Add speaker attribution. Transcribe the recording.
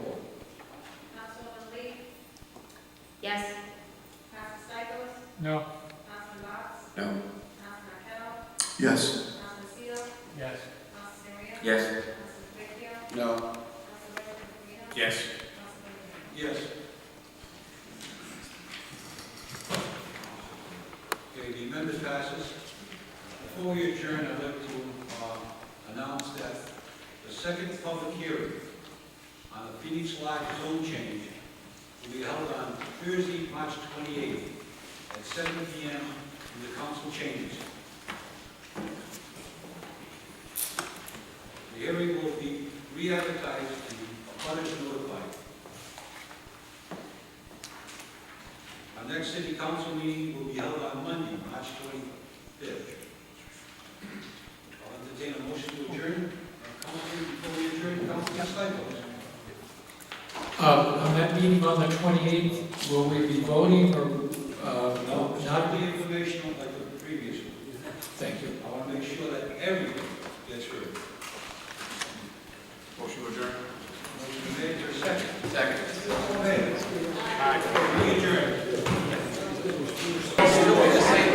Speaker 1: Yes.
Speaker 2: Councilman Stichels?
Speaker 3: No.
Speaker 2: Councilman Box?
Speaker 4: No.
Speaker 2: Councilman Marqueta?
Speaker 4: Yes.
Speaker 2: Councilman Seale?
Speaker 3: Yes.
Speaker 2: Councilman Ria?
Speaker 5: Yes.
Speaker 2: Councilman Vecchio?
Speaker 4: No.
Speaker 2: Councilman Rosarino?
Speaker 5: Yes.
Speaker 2: Councilman Lee?
Speaker 5: Yes. Okay, the amendment passes. Before we adjourn, I'd like to uh, announce that the second public hearing on the Phoenix Live zone change will be held on Thursday, March 28th at 7 PM in the council chambers. The hearing will be re-advertised and abutters notified. Our next city council meeting will be held on Monday, March 25th. I'll entertain a motion to adjourn. Uh, Council, before we adjourn, Councilman Stichels?
Speaker 3: Um, Uh, on that meeting on the twenty-eighth, will we be voting or